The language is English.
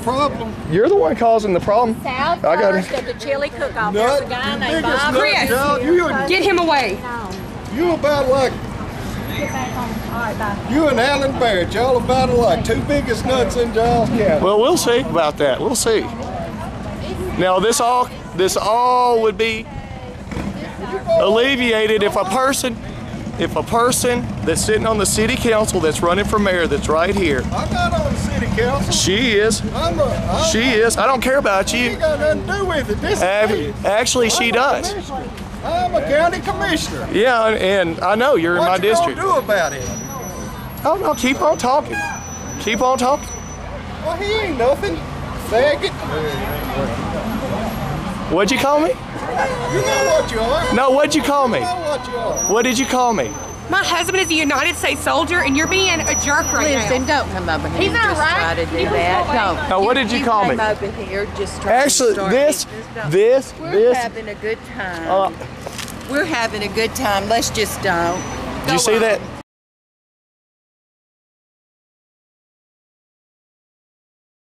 problem. You're the one causing the problem. South I got First it. of the chili cook-off. Nut, There's a guy you named think it's Bob. nut Chris. job? You, Get him away. you about like Get back on. All right, bye. you and Alan Barrett. Y'all about like two biggest nuts in Giles County. Well, we'll see about that. We'll see. Now, this all this all would be alleviated if a person if a person that's sitting on the city council that's running for mayor that's right here. I'm not on the city council. She is. I'm a. I'm, She is. I don't care about She you. got nothing to do with it. This Ab- is me. Actually, she I'm a does. commissioner. I'm a county commissioner. Yeah, and and I know you're in my What you gonna district. do about it? Oh no, keep on talking. Keep on talking. Well, he ain't nothing. Faggot. What'd you call me? You know what you are. No, what'd you call me? You know what you are. What did you call me? My husband is a United States soldier, and you're being a jerk right Listen, now. don't come over here. He's and not just right. try to do He was that. going Don't. Now, what did you call me? came over here just trying Actually, to start this, me. Just don't. this, We're this. having a good time. Uh, We're having a good time. Let's just uh, don't. um, do you see that?